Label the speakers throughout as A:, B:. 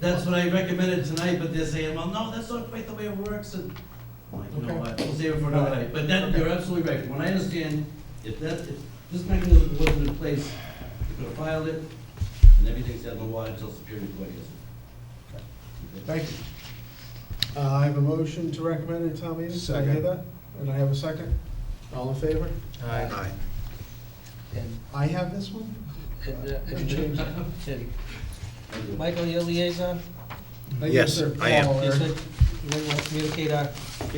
A: that's what I recommended tonight, but they're saying, well, no, that's not quite the way it works, and I'm like, you know
B: Okay.
A: what, we'll save it for another
B: Alright.
A: night. But that,
B: Okay.
A: you're absolutely right, From what I understand, if that, if this mechanism wasn't in place, you could have filed it, and everything's out in the water until Superior Court hears it. Okay.
B: Thank you. Uh, I have a motion to recommend at town meeting. Did I hear
C: Second.
B: that? And I have a second. All in favor?
C: Aye.
D: And,
B: I have this one?
D: and, uh,
B: I changed it.
D: and, Michael, your liaison,
B: Thank you,
C: Yes,
B: sir.
C: I am.
B: Paul,
D: just
B: Eric.
D: like, you might want to communicate our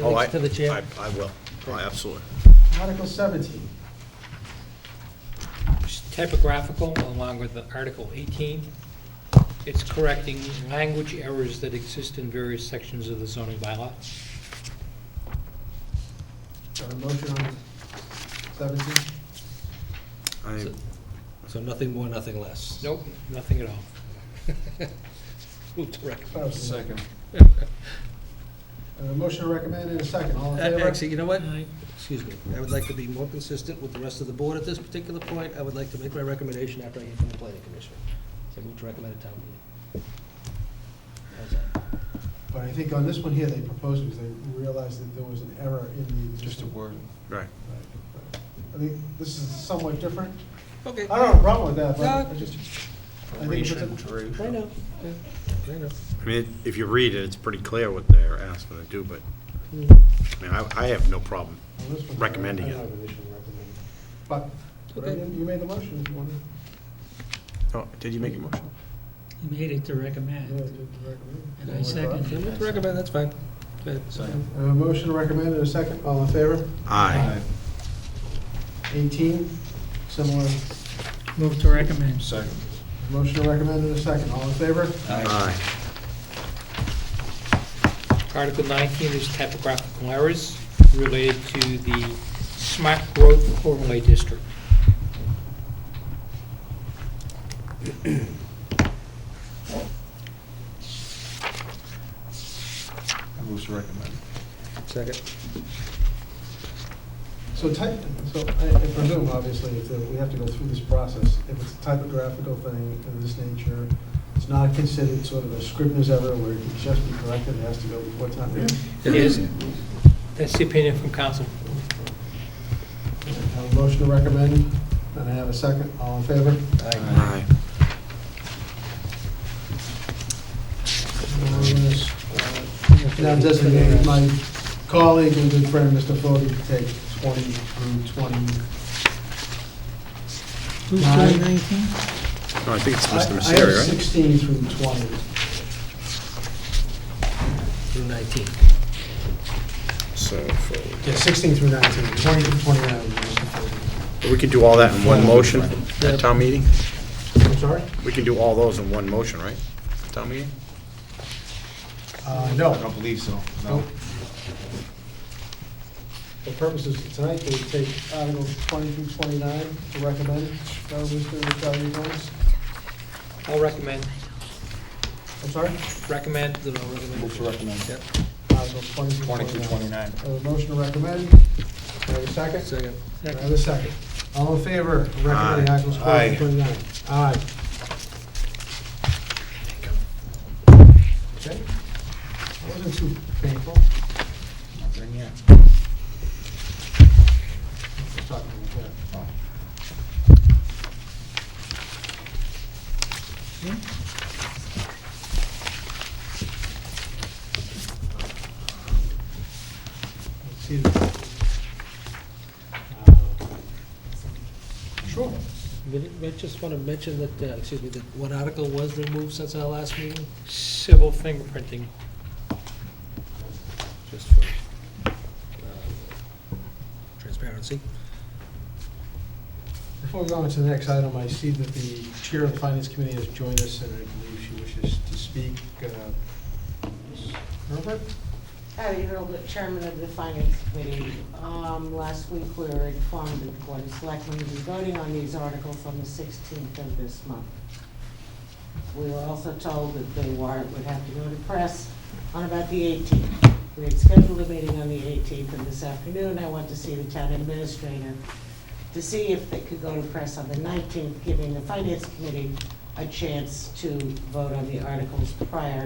C: Oh, I-
D: feelings to the chair.
C: I- I will, Oh, absolutely.
B: Article seventeen.
E: It's typographical along with Article 18. It's correcting language errors that exist in various sections of the zoning bylaw.
B: Got a motion on seventeen?
C: I,
D: So- So nothing more, nothing less.
E: Nope, nothing at all. Move to recommend.
B: Oh,
D: Second.
B: A motion to recommend and a second. All in favor?
D: Uh, Actually, you know what? Excuse me. I would like to be more consistent with the rest of the board at this particular point. I would like to make my recommendation after I hear from the planning commission. So I move to recommend a town meeting. How's that?
B: But I think on this one here, they proposed because they realized that there was an error in the. Just a word.
C: right.
B: I think this is somewhat different.
D: Okay.
B: I don't have a problem with that, but
D: No.
B: I just. I think if it's a-
D: I know. Yeah, I know.
C: I mean, if you read it, it's pretty clear what they're asking to do, but,
D: Mhm.
C: I mean, I, I have no problem.
B: on this one,
C: Recommending
B: I don't
C: it.
B: have an issue with recommending it. But, but I
D: Okay.
B: didn't- you made the motion if you wanted.
C: Oh, did you make a motion?
F: He made it to
B: Yeah,
F: recommend,
B: to recommend.
F: and I seconded
D: I
F: it.
D: move to recommend, that's fine. Go ahead.
B: A Uh, motion to recommend and a second. All in favor?
C: Aye.
B: Eighteen, similar.
F: Move to recommend.
C: Second.
B: Motion to recommend and a second. All in favor?
C: Aye.
E: Article 19 is typographical errors related to the smart growth overlay district.
D: Second.
B: So type, so I I presume, obviously, if there- we have to go through this process, if it's a typographical thing of this nature, it's not considered sort of a scrivener's error where it can just be corrected, it has to go before town meeting.
E: It is, that's the opinion from council.
B: I have a motion to recommend, and I have a second. All in favor?
C: Aye.
B: And I'm gonna, uh, Now designate my colleague and good friend, Mr. Fode, to take 20 through 20.
F: Who's
B: Aye.
F: doing nineteen?
C: No, I think it's
B: I-
C: Mr.
B: I have
C: Misery, right?
B: 16 through 20.
D: Through 19.
C: So, for-
B: Yeah, 16 through 19, 20 through 29. Mr. Fode.
C: we can do all that in one motion
D: Yeah.
C: at town meeting?
B: I'm sorry?
C: We can do all those in one motion, right? Town meeting?
B: Uh, no. I don't believe so, no. The purposes of tonight, they take Article 20 through 29 to recommend, that was Mr. Charlie Jones.
E: I'll recommend,
B: I'm sorry?
E: recommend,
D: Then I'll recommend.
G: Move to recommend.
D: Yep.
B: Article 20 through 29.
G: 20 through 29.
B: I have a motion to recommend. Do I have a second?
D: Second.
B: Do I have a second? All in favor of recommending
C: Aye.
B: Articles 20
G: Aye.
B: through 29? Aye. Okay. That Wasn't too painful.
G: Bring here.
B: Just talking about that.
G: Oh.
B: See Sure.
D: I just want to mention that, uh, excuse me, that what article was removed since our last meeting?
E: civil fingerprinting.
D: Just for um, transparency.
B: Before we go on to the next item, I see that the Chair of the Finance Committee has joined us, and I believe she wishes to speak. Uh, Ms. Herbert?
H: Patty Hurlbut, Chairman of the Finance Committee. Um, Last week, we were informed that the Board of Selectmen will be voting on these articles on the 16th of this month. We were also told that the warrant would have to go to press on about the 18th. We had scheduled a meeting on the 18th, and this afternoon, I went to see the town administrator to see if they could go to press on the 19th, giving the Finance Committee a chance to vote on the articles prior